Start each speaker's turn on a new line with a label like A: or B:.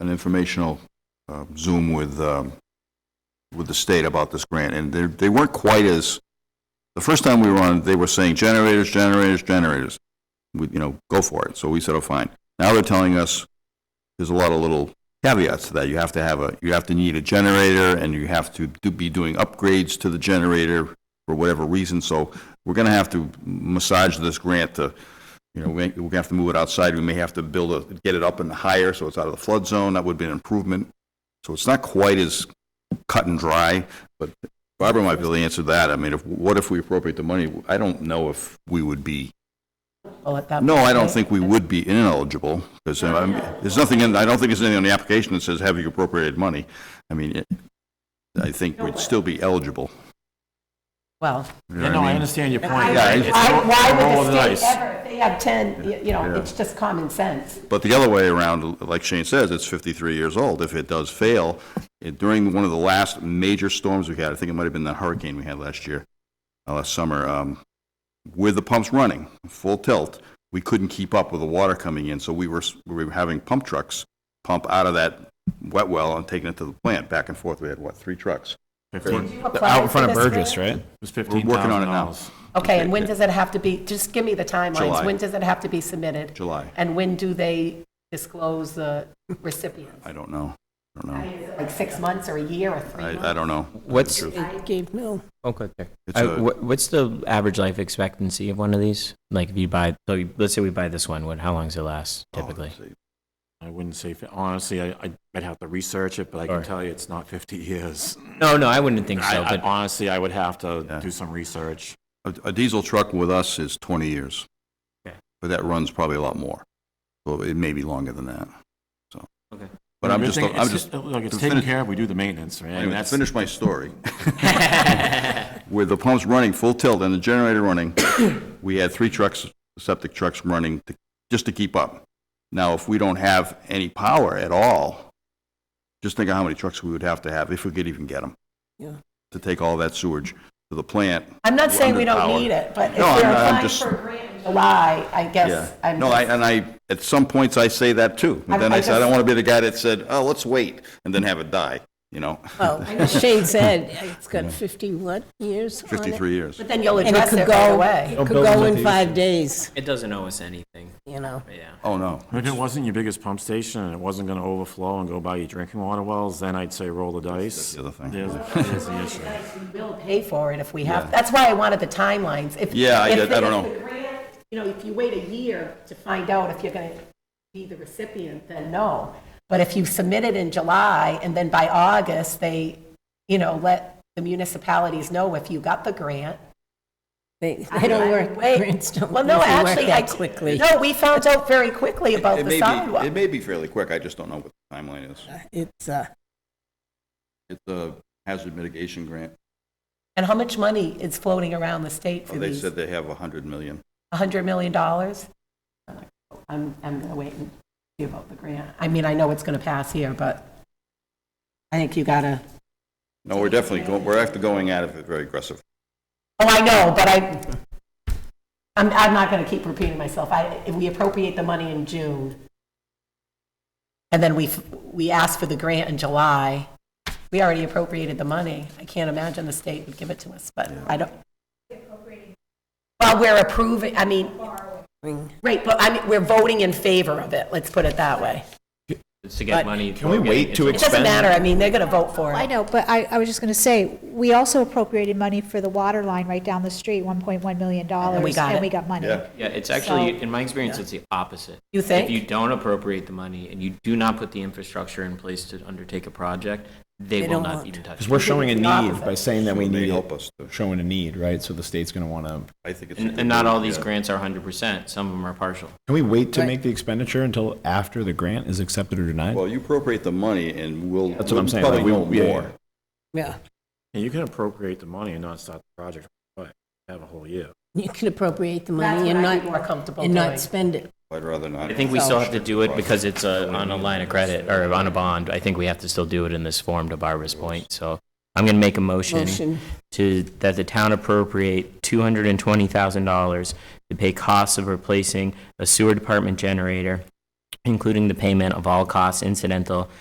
A: an informational uh, Zoom with, um, with the state about this grant, and they, they weren't quite as, the first time we were on, they were saying generators, generators, generators. We, you know, go for it. So we said, oh, fine. Now they're telling us there's a lot of little caveats to that. You have to have a, you have to need a generator, and you have to do- be doing upgrades to the generator for whatever reason. So we're gonna have to massage this grant to, you know, we- we're gonna have to move it outside. We may have to build a, get it up and higher, so it's out of the flood zone. That would be an improvement. So it's not quite as cut and dry, but Barbara might be able to answer that. I mean, if, what if we appropriate the money? I don't know if we would be,
B: Oh, at that
A: no,
B: point,
A: I don't
B: right?
A: think we would be ineligible, because there's nothing in, I don't think there's anything on the application that says, have you appropriated money? I mean, it- I think we'd still be eligible.
B: Well,
A: You know
C: Yeah,
A: what
C: no, I
A: mean?
C: understand your point.
A: Yeah,
C: It's
A: it's-
C: all-
D: Why, why
C: all
D: would the
C: nice.
D: state ever, if they have 10, y- you know, it's just common sense.
A: But the other way around, like Shane says, it's 53 years old. If it does fail, it- during one of the last major storms we had, I think it might have been that hurricane we had last year, uh, last summer, um, with the pumps running, full tilt, we couldn't keep up with the water coming in, so we were, s- we were having pump trucks pump out of that wet well and taking it to the plant, back and forth. We had, what, three trucks?
C: Fifteen-
D: Out in front of Burgess, right?
C: It was fifteen
A: working on
C: thousand
A: it now.
C: dollars.
B: okay, and when does it have to be, just give me the timelines.
A: July.
B: When does it have to be submitted?
A: July.
B: And when do they disclose the recipients?
A: I don't know. I don't know.
B: Like six months or a year or three months?
A: I, I don't know.
E: What's,
D: Gave Mill.
E: oh, go there.
A: It's
E: I-
A: a-
E: wha- What's the average life expectancy of one of these? Like if you buy, so you- let's say we buy this one, what, how long does it last
A: Oh,
E: typically?
C: I wouldn't say, fi- honestly, I, I- I'd have to research it, but I can
E: Sorry.
C: tell you it's not fifty years.
E: No, no, I wouldn't think
C: I,
E: so,
C: I-
E: but
C: honestly, I would have to
A: Yeah.
C: do some research.
A: A a diesel truck with us is 20 years.
E: Okay.
A: But that runs probably a lot more. So it may be longer than that, so.
E: Okay.
A: But
C: The
A: I'm
C: good
A: just,
C: thing-
A: I'm
C: it's-
A: just,
C: Look, it's
A: to
C: taken
A: finish-
C: care of, we do the maintenance, right? And
A: anyway, to
C: that's,
A: finish my story. With the pumps running full tilt and the generator running, we had three trucks, septic trucks running to- just to keep up. Now, if we don't have any power at all, just think of how many trucks we would have to have, if we could even get them. To take all that sewage to the plant.
D: I'm not saying we
A: Underpowered.
D: don't need it, but if
A: No, I'm
D: they're
A: not- I'm
D: applying
A: just-
D: for a grant in July, I
A: Yeah.
D: guess I'm
A: No, I,
D: just,
A: and I, at some points, I say that too. But
D: I'm-
A: then I
D: I
A: said, I don't
D: just-
A: want to be the guy that said, oh, let's wait, and then have it die, you know?
F: Well, as Shane said, it's got 51 years on it.
A: 53 years.
B: But then you'll
F: And it
B: address
F: could
B: it right
F: go,
B: away.
F: it could go in five days,
E: it doesn't owe us anything,
F: you know.
E: but yeah.
A: Oh, no.
C: if it wasn't your biggest pump station and it wasn't gonna overflow and go by your drinking water wells, then I'd say roll the dice.
A: the other thing.
C: There's, there's the issue.
B: We'll pay for it if we have,
A: Yeah.
B: that's why I wanted the timelines. If-
A: Yeah, I
B: if
A: did- I
B: the-
A: don't
B: if the grant- You know, if you wait a year to find out if you're going to be the recipient, then no. But if you submit it in July and then by August, they, you know, let the municipalities know if you got the grant.
F: They,
B: I-
F: they don't
B: I
F: work,
B: wait.
F: grants don't
B: Well, no,
F: usually work
B: actually, I,
F: that quickly.
B: no, we found out very quickly about
A: It
B: the
A: may be, it
B: sidewalk.
A: may be fairly quick, I just don't know what the timeline is.
F: It's, uh,
A: It's a hazard mitigation grant.
B: And how much money is floating around the state
A: Oh,
B: for
A: They
B: these?
A: said they have 100 million.
B: $100 million? I'm, I'm going to wait and see about the grant. I mean, I know it's going to pass here, but I think you got to,
A: No, we're definitely, go- we're actually going at it very aggressive.
B: oh, I know, but I, I'm, I'm not going to keep repeating myself. I, if we appropriate the money in June, and then we, f- we ask for the grant in July, we already appropriated the money. I can't imagine the state would give it to us, but I don't. Well, we're approving, I mean, right, but I mean, we're voting in favor of it, let's put it that way.
E: It's to get
B: But-
E: money. Can
G: we wait to
B: It doesn't matter, I mean, they're going to vote for
H: I
B: it.
H: know, but I, I was just gonna say, we also appropriated money for the water line right down the street, one point one million dollars.
B: And we got it.
H: And we got money.
A: Yeah.
E: Yeah, it's actually, in my experience, it's the opposite.
B: You think?
E: If you don't appropriate the money and you do not put the infrastructure in place to undertake a project, they will
F: don't
E: not
F: want
E: even touch
G: Because
E: it.
G: we're showing a
B: It's the
G: need
B: opposite.
G: by saying that we
A: They
G: need
A: help
G: it,
A: us to-
G: showing a need, right? So the state's going to want to,
A: I think it's. a
E: And
A: good
E: and not all
A: idea.
E: these grants are 100%, some of them are partial.
G: can we wait to
F: Right.
G: make the expenditure until after the grant is accepted or denied?
A: Well, you appropriate the money and we'll.
G: That's what I'm
A: we'll
G: saying,
A: Probably
G: like,
A: know
G: we- yeah,
A: more.
G: yeah.
F: yeah,
C: And you can appropriate the money and not start the project, but have a whole year.
F: you can appropriate the
B: That's
F: money
B: what
F: and
B: I'd be more
F: not,
B: comfortable
F: and
B: doing.
F: not spend it.
A: I'd rather not.
E: I think we still have to do it because it's uh, on a line of credit or on a bond. I think we have to still do it in this form to Barbara's point. So I'm going to make a motion
F: Motion.
E: to, that the town appropriate $220,000 to pay costs of replacing a sewer department generator including the payment of all costs incidental